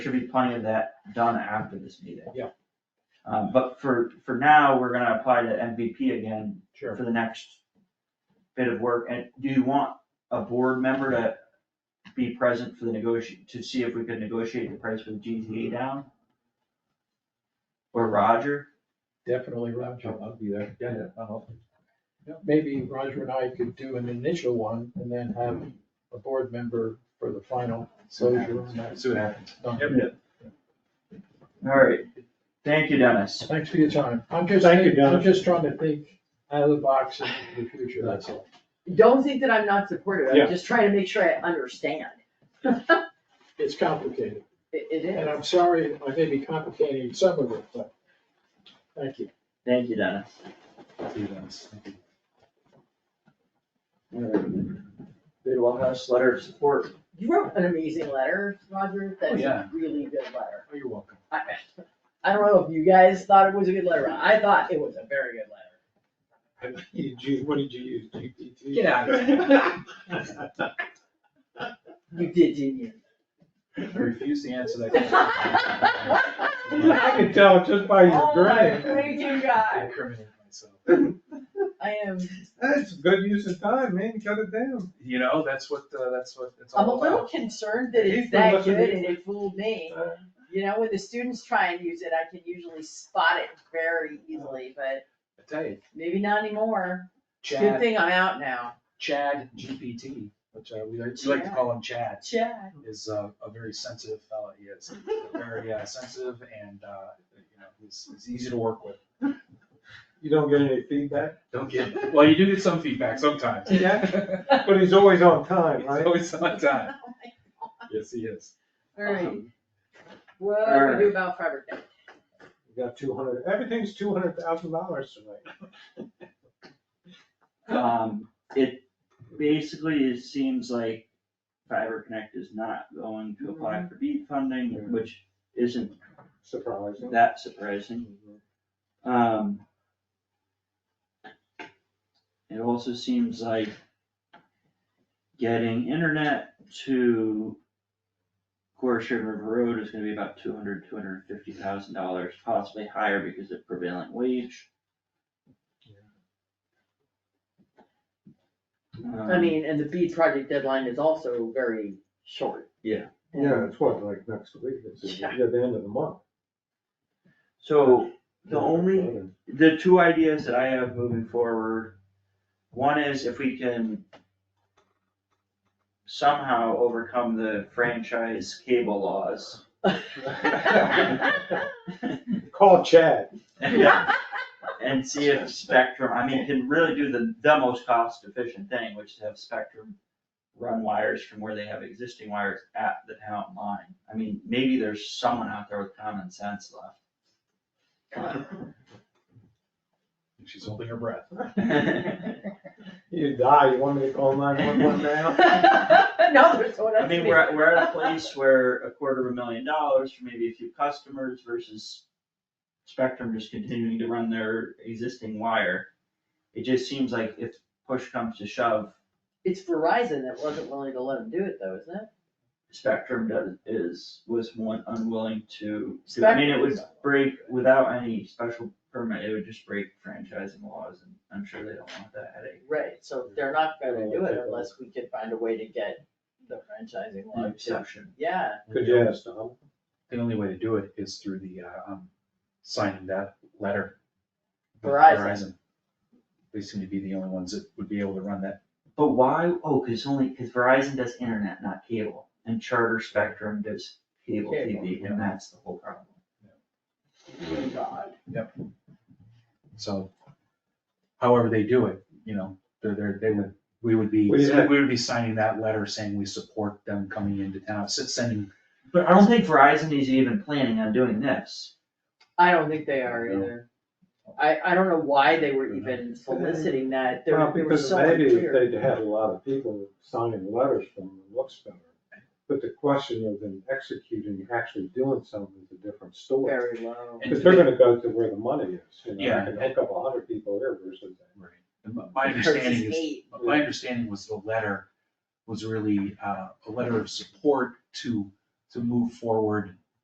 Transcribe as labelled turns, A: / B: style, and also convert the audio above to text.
A: should be plenty of that done after this meeting.
B: Yeah.
A: Uh, but for, for now, we're gonna apply to MVP again
B: Sure.
A: for the next bit of work, and do you want a board member to be present for the negoti, to see if we could negotiate the price with GTA down? Or Roger,
B: Definitely Roger.
C: I'll be there.
B: Yeah.
C: I'll help.
B: Maybe Roger and I could do an initial one and then have a board member for the final closure on that.
C: See what happens.
A: alright, thank you, Dennis.
B: Thanks for your time. I'm just,
C: Thank you,
B: thinking- I'm
C: Dennis.
B: just trying to think out of the box in the future, that's all.
D: Don't think that I'm not supportive,
C: Yeah.
D: I'm just trying to make sure I understand. It,
B: It's complicated,
D: it
B: and
D: is.
B: I'm sorry I may be complicating some of it, but thank you.
A: Thank you, Dennis.
C: See you then. Thank you.
A: Bidwell House letter of support.
D: You wrote an amazing letter, Roger, that's
C: yeah.
D: a really good letter.
B: Oh, You're welcome.
D: I, I don't know if you guys thought it was a good letter, or not. I thought it was a very good letter.
B: You ju- What did you use, GPT?
D: Get out of
B: here.
D: You did, didn't you?
C: I refuse to answer that question.
B: I could tell just by your
D: Oh my
B: grin.
D: freaking
C: I
D: God,
C: incriminate myself.
D: I am,
C: That's good use of time, man, cut it down. You know, that's what, uh, that's what it's
D: I'm a
C: all
D: little
C: about.
D: concerned that it's
C: He's been
D: that
C: listening.
D: good and it fooled me. You know, when the students try and use it, I can usually spot it very easily, but
C: I tell you,
D: maybe not anymore. Good
C: Chad,
D: thing I'm out now.
C: Chad GPT, which uh, we like we like to call him Chad,
D: Chad.
C: is uh, a very sensitive fella. He is very uh, sensitive and, uh, you know, he's, he's easy to work with.
B: You don't get any feedback?
C: Don't get, well, you do get some feedback sometimes.
B: Yeah. But he's always on time,
C: He's always on time. Yes, he is.
D: Alright,
C: Um,
D: what do we do about fabric? day?
B: You got two hundred, everything's two hundred thousand dollars tonight.
A: Um, it basically it seems like Fiber Connect is not going to apply for BEAD funding, which isn't
B: Surprising.
A: that surprising. Um. It also seems like getting internet to Gorse River Road is gonna be about two hundred, two hundred and fifty thousand dollars, possibly higher because of prevailing wage. Um,
D: I mean, and the bead project deadline is also very short.
A: Yeah.
B: Yeah, it's what, like next week, it's
D: Yeah.
B: at the end of the month.
A: So the only the two ideas that I have moving forward, one is if we can somehow overcome the franchise cable laws.
B: Call Chad.
A: And see if Spectrum, I mean, can really do the, the most cost efficient thing, which is have Spectrum run wires from where they have existing wires at the town line. I mean, maybe there's someone out there with common sense
C: She's holding her breath.
A: left.
B: You die, you want me to call nine one one now?
D: No, there's no one
A: I
D: else.
A: mean, we're, at- we're at a place where a quarter of a million dollars for maybe a few customers versus Spectrum just continuing to run their existing wire. It just seems like if push comes to shove,
D: It's Verizon that wasn't willing to let him do it though, isn't it?
A: Spectrum does, is, was one unwilling to, to- I mean, it would break, without any special permit, it would just break franchising laws, and I'm sure they don't want that headache.
D: Right, so they're not gonna do it unless we can find a way to get the franchising
A: The
D: law to,
A: exception.
D: yeah.
B: Could you ask Tom?
C: The only way to do it is through the, uh, um, signing that letter.
D: Verizon.
C: They seem to be the only ones that would be able to run that.
A: But why, oh, cause only, cause Verizon does internet, not cable, and Charter Spectrum does cable
D: Cable,
A: TV,
C: yeah.
A: and that's the whole problem.
D: Oh, God.
C: So however they do it, you know, they're, they're, they would, we would be,
B: Well, yeah.
C: we would be signing that letter saying we support them coming into town, s- sending.
A: But I don't think Verizon is even planning on doing this.
D: I don't think they are
C: No.
D: either. I, I don't know why they were even soliciting that, they
B: Well,
D: were, they were
B: because
D: so
B: maybe if
D: unclear.
B: they'd had a lot of people signing letters from them, it looks better. But the question of them executing, actually doing something is a different story.
D: Very low.
C: and
B: Because they're gonna go to where the money is, you know,
C: Yeah.
B: I can hook up a hundred people here versus.
C: Right. And my- My
D: Versus
C: understanding is
D: eight.
C: But my understanding was the letter was really uh, a letter of support to, to move forward